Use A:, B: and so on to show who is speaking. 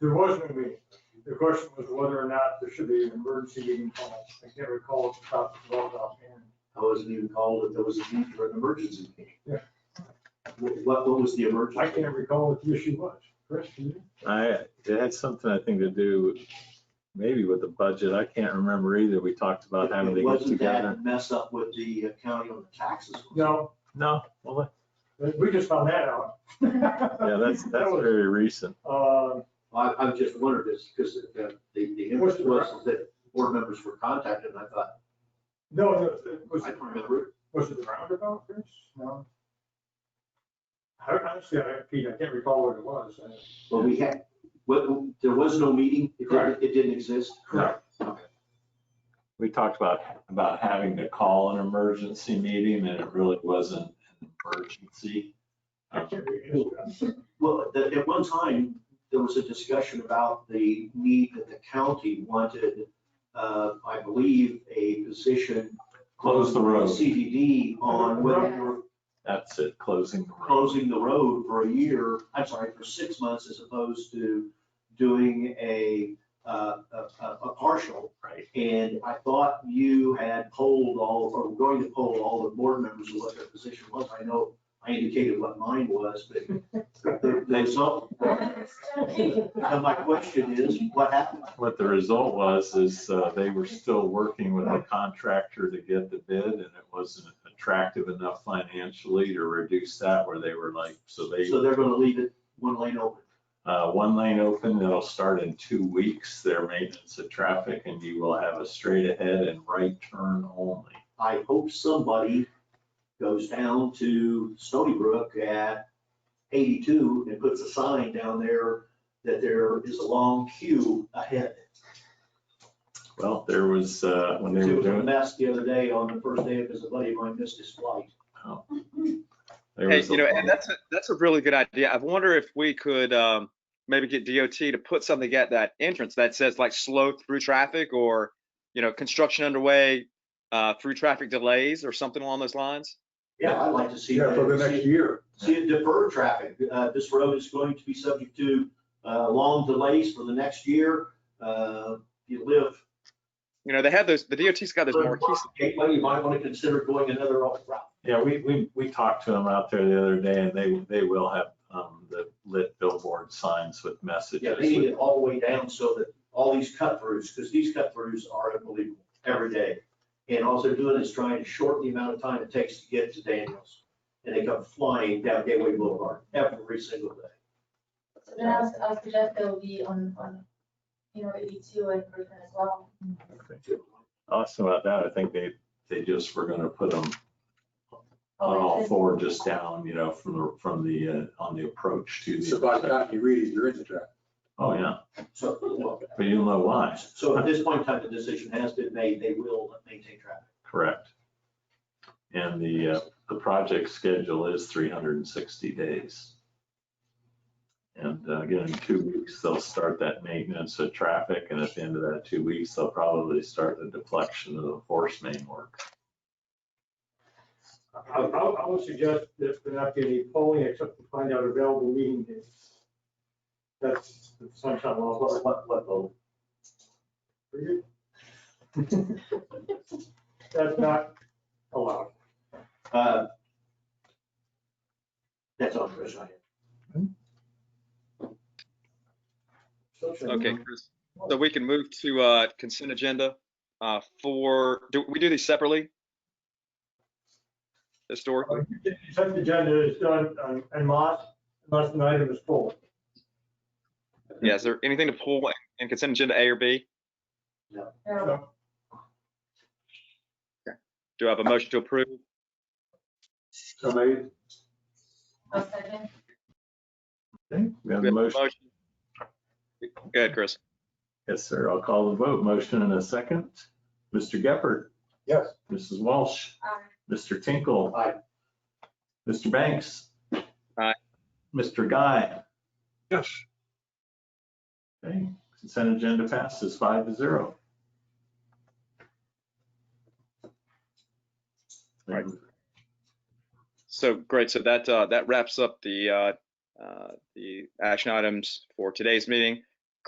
A: There was no meeting. The question was whether or not there should be an emergency meeting called. I can't recall if the top was involved offhand.
B: I wasn't even called if there was a need for an emergency meeting.
A: Yeah.
B: What, what what was the emergency?
A: I can't recall what the issue was. Chris, do you?
C: I, it had something, I think, to do with, maybe with the budget. I can't remember either. We talked about having to get
B: Wasn't
C: together.
B: that mess up with the uh, county on the taxes?
A: No,
C: No, well,
A: we just found that out.
C: yeah, that's, that's very recent.
A: Uh,
B: I, I've just wondered this, because the, the
A: What's the-
B: impression was that board members were contacted, and I thought,
A: No, no, it was
B: I
A: it,
B: don't remember. it.
A: was it the roundabout, Chris? No. I honestly, I, Pete, I can't recall what it was. I-
B: But we had, what, there was no meeting? It didn't,
A: Correct.
B: it didn't exist?
A: Correct.
B: Okay.
C: We talked about, about having to call an emergency meeting and it really wasn't an emergency. Uh,
A: I can't remember.
B: Well, at, at one time, there was a discussion about the need that the county wanted, uh, I believe, a position.
C: Close the road.
B: CDD on whether we were
C: That's it, closing the road.
B: closing the road for a year, I'm sorry, for six months as opposed to doing a, uh, a, a- a partial.
C: Right.
B: And I thought you had polled all, or were going to poll all the board members of what their position was. I know I indicated what mine was, but the, the result, and my question is, what happened?
C: What the result was is uh, they were still working with the contractor to get the bid and it wasn't attractive enough financially to reduce that where they were like, so they.
B: So they're gonna leave it one lane open.
C: Uh, one lane open that'll start in two weeks, their maintenance of traffic, and you will have a straight ahead and right turn only.
B: I hope somebody goes down to Stony Brook at eighty-two and puts a sign down there that there is a long queue ahead.
C: Well, there was, uh, when they
B: It
C: were
B: was a
C: doing,
B: mess the other day on the first day because a buddy of mine missed his flight.
C: there
D: Hey,
C: was.
D: you
C: a
D: know,
C: long-
D: and that's, a- that's a really good idea. I wonder if we could um, maybe get DOT to put something at that entrance that says like slow through traffic or, you know, construction underway, uh, through traffic delays or something along those lines.
B: Yeah, I'd like to see
A: Yeah,
B: that.
A: for the
B: See-
A: next year.
B: See it defer traffic. Uh, This road is going to be subject to uh, long delays for the next year. Uh, You live.
D: You know, they have those, the DOT's got those marquee
B: Gateway, you might want to consider going another route.
C: Yeah, we, we, we talked to them out there the other day, and they, they will have, um, the lit billboard signs with
B: Yeah, they need
C: messages.
B: it all the way down so that all these cut throughs, because these cut throughs are unbelievable every day. And all they're doing is trying to shorten the amount of time it takes to get to Daniels. And they come flying down Gateway Boulevard every single day.
E: So then I was, I was suggest that we on, on, you know, eighty-two and Griffin as well.
C: Awesome about that. I think they, they just were gonna put them on all four, just down, you know, from the, from the, uh, on the approach to the.
F: So by the time you read it, you're in the trap.
C: Oh, yeah,
B: So, well,
C: but you don't know why,
B: so at this point in time, the decision has been made, they will maintain traffic.
C: correct? And the, uh, the project schedule is three hundred and sixty days. And uh, again, in two weeks, they'll start that maintenance of traffic, and at the end of that two weeks, they'll probably start the deflection of the force main work.
A: I, I I would suggest that there not be any polling except to find out available meeting dates. That's the sunshine law.
B: What, what, what, vote?
A: That's not allowed.
B: Uh, That's all, Chris, I have.
A: Sunshine law.
D: Okay, Chris. So we can move to uh, consent agenda uh, for, do we do these separately? Historically?
A: The Consent agenda is done on- en masse unless an item is pulled.
D: Yeah, is there anything to pull in consent agenda A or B?
E: Now,
D: Do I have a motion to approve?
A: So maybe
E: a second,
C: Okay, we have a
D: We have a
C: motion.
D: motion. Go ahead, Chris.
C: Yes, sir. I'll call the vote. Motion and a second. Mr. Gephardt?
F: Yes.
C: Mrs. Walsh?
E: Aye.
C: Mr. Tinkle?
B: Aye.
C: Mr. Banks?
D: Aye.
C: Mr. Guy?
F: Yes.
C: Okay, consent agenda passes five to zero.
D: Right. So, great, so that, uh, that wraps up the, uh, uh, the action items for today's meeting.